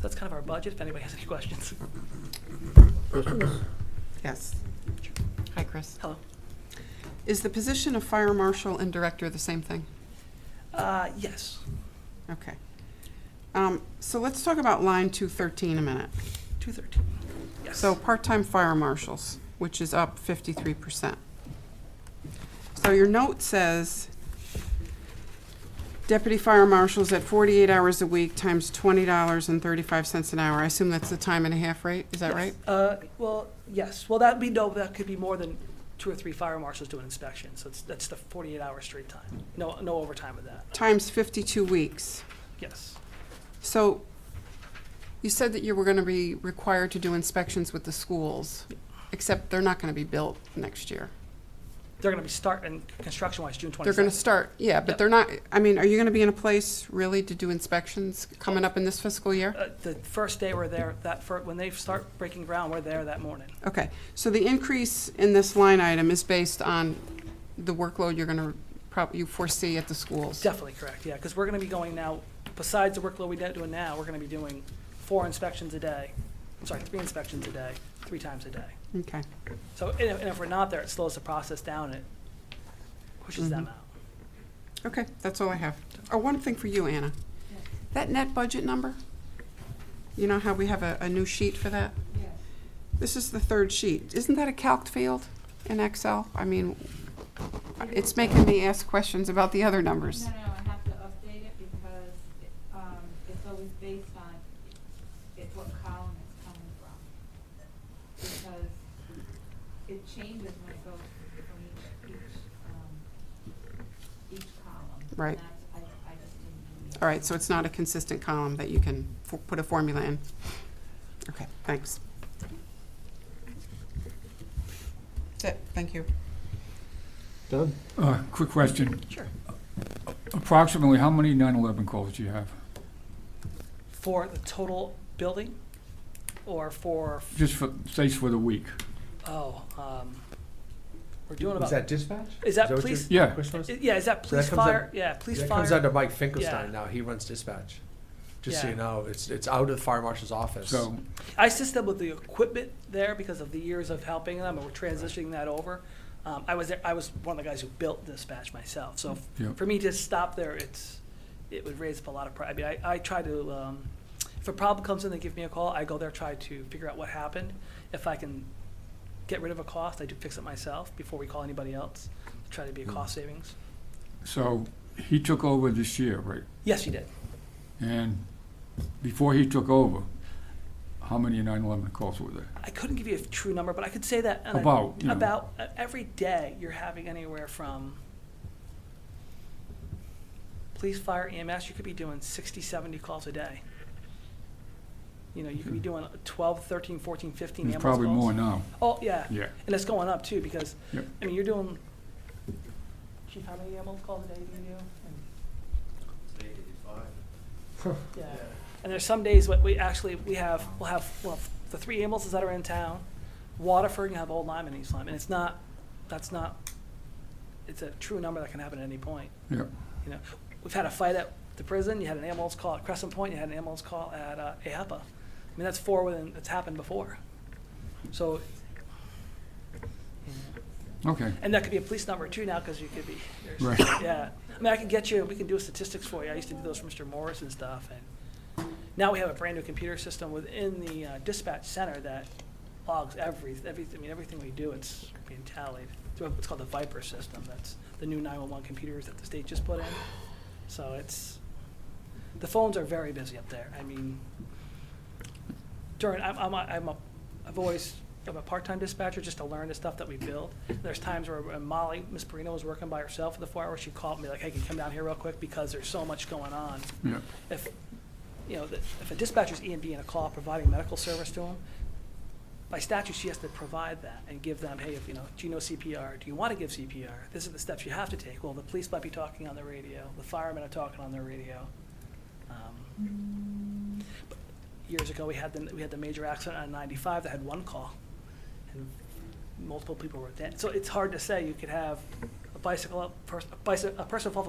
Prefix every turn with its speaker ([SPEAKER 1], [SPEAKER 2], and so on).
[SPEAKER 1] that's kind of our budget, if anybody has any questions.
[SPEAKER 2] Yes. Hi, Chris.
[SPEAKER 1] Hello.
[SPEAKER 2] Is the position of fire marshal and director the same thing?
[SPEAKER 1] Uh, yes.
[SPEAKER 2] Okay. Um, So let's talk about line 213 a minute.
[SPEAKER 1] 213. Yes.
[SPEAKER 2] So part-time fire marshals, which is up 53%. So your note says deputy fire marshals at 48 hours a week times $20.35 an hour. I assume that's the time and a half rate, is that
[SPEAKER 1] Yes.
[SPEAKER 2] right?
[SPEAKER 1] Uh, well, yes. Well, that'd be, no, that could be more than two or three fire marshals doing inspections. So it's, that's the 48-hour straight time. No, no overtime with that.
[SPEAKER 2] Times 52 weeks.
[SPEAKER 1] Yes.
[SPEAKER 2] So you said that you were going to be required to do inspections with the schools, except they're not going to be built next year.
[SPEAKER 1] They're going to be starting construction-wise June 22nd.
[SPEAKER 2] They're going to start, yeah, but
[SPEAKER 1] Yep.
[SPEAKER 2] they're not, I mean, are you going to be in a place really to do inspections coming up in this fiscal year?
[SPEAKER 1] Uh, the first day we're there, that fir, when they start breaking ground, we're there that morning.
[SPEAKER 2] Okay, so the increase in this line item is based on the workload you're going to, prob, you foresee at the schools?
[SPEAKER 1] Definitely correct, yeah, because we're going to be going now, besides the workload we're doing now, we're going to be doing four inspections a day, I'm sorry, three inspections a day, three times a day.
[SPEAKER 2] Okay,
[SPEAKER 1] So, and if, and if we're not there, it slows the process down, it pushes them
[SPEAKER 3] Mm-hmm.
[SPEAKER 1] out.
[SPEAKER 2] okay, that's all I have. Oh, one thing for you, Anna. That net budget number, you know how we have a, a new sheet for that?
[SPEAKER 4] Yes.
[SPEAKER 2] This is the third sheet. Isn't that a calc field in Excel? I mean, it's making me ask questions about the other numbers.
[SPEAKER 4] No, no, I have to update it because, it, um, it's always based on, it what column it's coming from. Because it changes when it goes from each, each, um, each column. And
[SPEAKER 2] Right.
[SPEAKER 4] that's- I, I just didn't. do that.
[SPEAKER 2] All right, so it's not a consistent column that you can fo- put a formula in? Okay, thanks. That's it, thank you.
[SPEAKER 3] Doug?
[SPEAKER 5] Uh, Quick question.
[SPEAKER 1] Sure.
[SPEAKER 5] Approximately how many 9/11 calls do you have?
[SPEAKER 1] For the total building, or for,
[SPEAKER 5] Just for, say for the week?
[SPEAKER 1] oh, um, we're doing about.
[SPEAKER 3] Is that dispatch?
[SPEAKER 1] Is that
[SPEAKER 3] what
[SPEAKER 1] police-
[SPEAKER 3] your
[SPEAKER 5] Yeah.
[SPEAKER 3] question was?
[SPEAKER 1] I- Yeah, is that
[SPEAKER 3] that
[SPEAKER 1] police
[SPEAKER 3] comes out-
[SPEAKER 1] fire? Yeah, police
[SPEAKER 3] That comes
[SPEAKER 1] fire.
[SPEAKER 3] under Mike
[SPEAKER 1] Yeah.
[SPEAKER 3] Finkelstein now, he runs dispatch. Just so
[SPEAKER 1] Yeah.
[SPEAKER 3] you know, it's, it's out of the fire marshal's office.
[SPEAKER 5] So,
[SPEAKER 1] I assist them with the equipment there because of the years of helping them, and we're transitioning that over. Um, I was, there- I was one of the guys who built dispatch myself, so f-
[SPEAKER 5] Yeah.
[SPEAKER 1] for me to stop there, it's, it would raise up a lot of, pri- I mean, I, I try to, um, if a problem comes in, they give me a call, I go there, try to figure out what happened. If I can get rid of a cost, I do fix it myself before we call anybody else, try to be a cost savings.
[SPEAKER 5] so he took over this year, right?
[SPEAKER 1] Yes, you did.
[SPEAKER 5] And before he took over, how many 9/11 calls were there?
[SPEAKER 1] I couldn't give you a true number, but I could say that on a-
[SPEAKER 5] About, you know.
[SPEAKER 1] about uh, every day you're having anywhere from police, fire, EMS. You could be doing 60, 70 calls a day. You know, you could be doing 12, 13, 14, 15
[SPEAKER 5] Hmm. There's
[SPEAKER 1] ambulance
[SPEAKER 5] probably
[SPEAKER 1] calls.
[SPEAKER 5] more now.
[SPEAKER 1] Oh yeah,
[SPEAKER 5] Yeah.
[SPEAKER 1] and it's going up too because
[SPEAKER 5] Yep.
[SPEAKER 1] I mean you're doing. Chief, how many ambulance calls a day do you do? Yeah. And there's some days what we actually, we have, we'll have, well, the three ambulances that are in town, Waterford, you have Old Lyme and East Lyme, and it's not, that's not, it's a true number that can happen at any point,
[SPEAKER 5] Yeah,
[SPEAKER 1] you know. We've had a fight at the prison, you had an ambulance call at Crescent Point, you had an ambulance call at, uh, AHPA. I mean, that's four within, it's happened before. So,
[SPEAKER 5] okay,
[SPEAKER 1] and that could be a police number too now, because you could be, there's-
[SPEAKER 5] right.
[SPEAKER 1] yeah, I mean, I can get you, we can do statistics for you. I used to do those for Mr. Morris and stuff, and now we have a brand-new computer system within the uh, dispatch center that logs every, every, I mean, everything we do, it's being tallied. It's what- It's called the Viper system. That's the new 911 computers that the state just put in. So it's, the phones are very busy up there. I mean, during, I'm, I'm, a- I'm a, I've always, I'm a part-time dispatcher just to learn the stuff that we build. There's times where when Molly, Miss Perino was working by herself for the four hours, she called me like, hey, can you come down here real quick because there's so much going on.
[SPEAKER 5] Yeah,
[SPEAKER 1] If, you know, that- if a dispatcher's E and B in a call providing medical service to them, by statute, she has to provide that and give them, hey, if, you know, do you know CPR? Do you want to give CPR? This is the steps you have to take. Well, the police might be talking on the radio, the firemen are talking on their radio. Um, but Years ago, we had the, we had the major accident on ninety-five that had one call, and multiple people were dead. So it's hard to say, you could have a bicycle, a person, a bicycle, a person fall off a